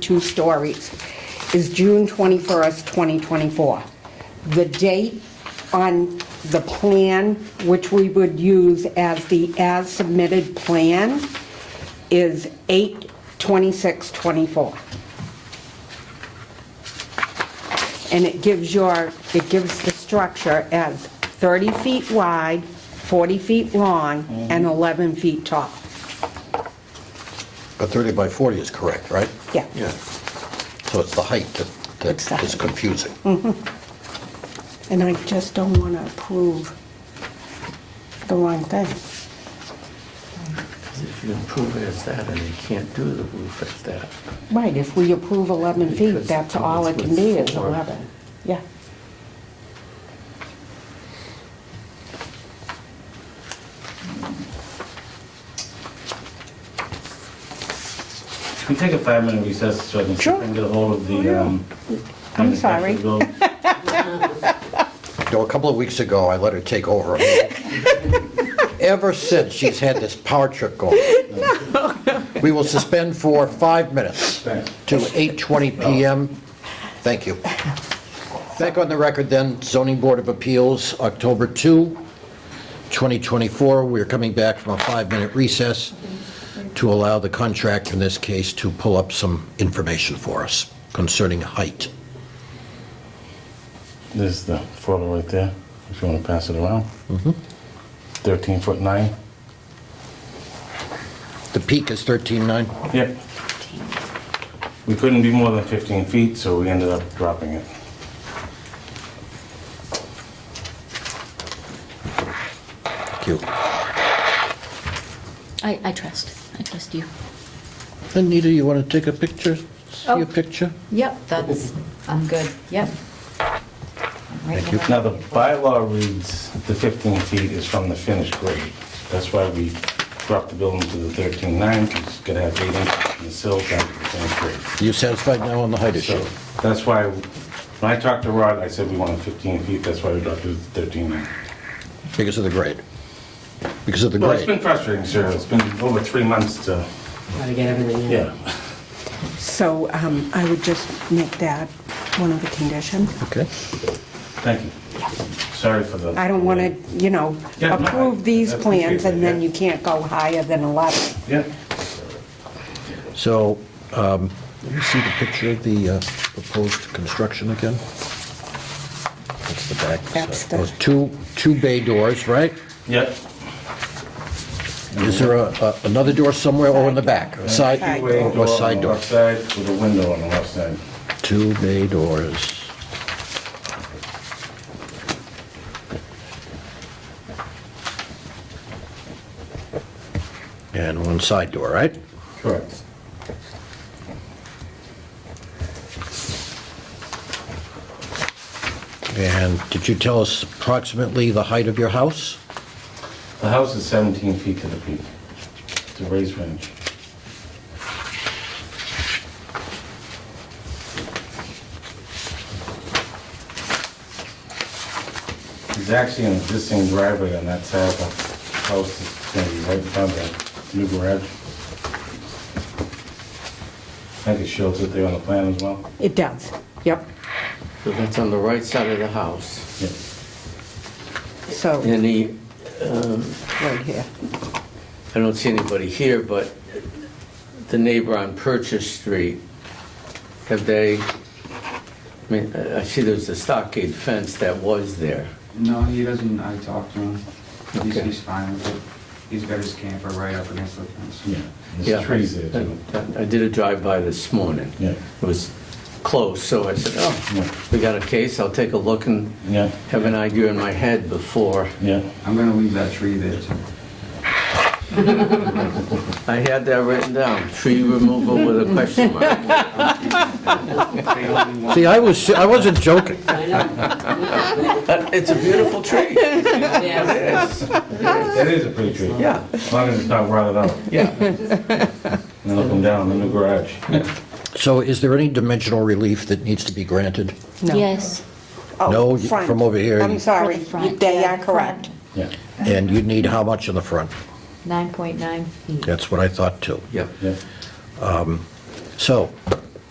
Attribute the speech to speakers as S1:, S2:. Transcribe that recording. S1: two stories, is June 21st, 2024. The date on the plan, which we would use as the as-submitted plan, is 8/26/24. and it gives your, it gives the structure as 30 feet wide, 40 feet long, and 11 feet tall.
S2: But 30 by 40 is correct, right?
S1: Yeah.
S2: Yeah. So it's the height that,
S1: It's the
S2: that is
S1: height.
S2: confusing.
S1: And I just don't want to approve the wrong thing.
S3: If you improve it as that, and you can't do the roof as that.
S1: Right, if we approve 11 feet,
S3: Because
S1: that's all it can be is
S3: it's four.
S1: 11. Yeah.
S4: Can we take a five-minute recess so I can see if I can
S1: Sure.
S4: get a hold of
S1: Oh,
S4: the,
S1: yeah.
S4: um...
S1: I'm sorry.
S4: manufacturer's building?
S2: You know, a couple of weeks ago, I let her take over. Ever since, she's had this power trip going. We will suspend for five minutes
S4: Thanks.
S2: to 8:20 PM. Thank you. Back on the record then, zoning board of appeals, October 2, 2024. We're coming back from a five-minute recess to allow the contract, in this case, to pull up some information for us concerning height.
S5: This is the photo right there, if you want to pass it around. 13 foot 9?
S2: The peak is 13.9?
S5: Yep. We couldn't be more than 15 feet, so we ended up dropping it.
S2: Thank you.
S6: I, I trust. I trust you.
S2: Anita, you want to take a picture? See
S6: Oh.
S2: a picture?
S6: Yep, that's, I'm good. Yep. Thank you.
S5: Now, the bylaw reads the 15 feet is from the finished grade. That's why we dropped the building to the 13.9, because it's going to have 8 inches in the sill down to the finished grade.
S2: Are you satisfied now on the height issue?
S5: So that's why, when I talked to Rod, I said we wanted 15 feet, that's why we dropped it to 13.9.
S2: Because of the grade? Because of the
S5: Well, it's been
S2: grade?
S5: frustrating, sir. It's been over three months to,
S7: Gotta get everything in.
S5: yeah.
S1: So um, I would just make that one of the conditions.
S2: Okay.
S5: Thank you. Sorry for the...
S1: I don't want to, you know,
S5: Yeah, no, I-
S1: approve these
S5: I appreciate
S1: plans and
S5: that,
S1: then
S5: yeah.
S1: you can't go higher than 11.
S5: Yeah.
S2: So, um, let me see the picture of the uh, proposed construction again. That's the back. side.
S1: That's the-
S2: Those two, two bay doors, right?
S5: Yep.
S2: Is there a- a- another door somewhere or in the back? A Side,
S1: Side
S5: Two-way
S2: or
S5: door
S2: or
S5: on
S2: side
S5: the
S2: door?
S5: left side with a window on the left side.
S2: Two bay doors. And one side door, right?
S5: Correct.
S2: And did you tell us approximately the height of your house?
S5: The house is 17 feet to the peak. It's a raised range. There's actually an existing driveway on that side of the house that's going to be right in front of the new garage. I think it shows it there on the plan as well.
S1: It does, yep.
S3: So that's on the right side of the house.
S5: Yeah.
S1: So,
S3: And the,
S1: right here.
S3: I don't see anybody here, but the neighbor on Purchase Street, have they, I mean, I I see there's a stockade fence that was there.
S8: No, he doesn't, I talked to him, he's,
S3: Okay.
S8: he's fine with it, he's got his camper right up against the fence.
S5: Yeah.
S3: Yeah,
S5: There's trees there too.
S3: I I did a drive-by this morning.
S5: Yeah.
S3: It was close, so I said,
S5: Yeah.
S3: oh, we got a case, I'll take a look and
S5: Yeah,
S3: have an idea in my head before.
S5: yeah.
S8: I'm gonna leave that tree there too.
S3: I had that written down, tree removal with a question mark.
S8: They only want-
S2: See, I was, I wasn't joking.
S7: I know.
S3: But It's a beautiful tree.
S7: Yeah.
S5: That is a pretty tree.
S3: Yeah.
S5: As long as it's not rotted out.
S3: Yeah,
S5: And look them down in the new garage.
S2: So is there any dimensional relief that needs to be granted?
S1: No.
S6: Yes.
S1: Oh,
S2: No, you-
S1: front.
S2: from over here,
S1: I'm
S2: you-
S1: sorry,
S6: For the front,
S1: they
S6: yeah,
S1: are
S6: the
S1: correct.
S5: Yeah,
S2: And you'd need how much in the front?
S6: 9.9 feet.
S2: That's what I thought too.
S3: yeah.
S5: yeah.
S2: So, um,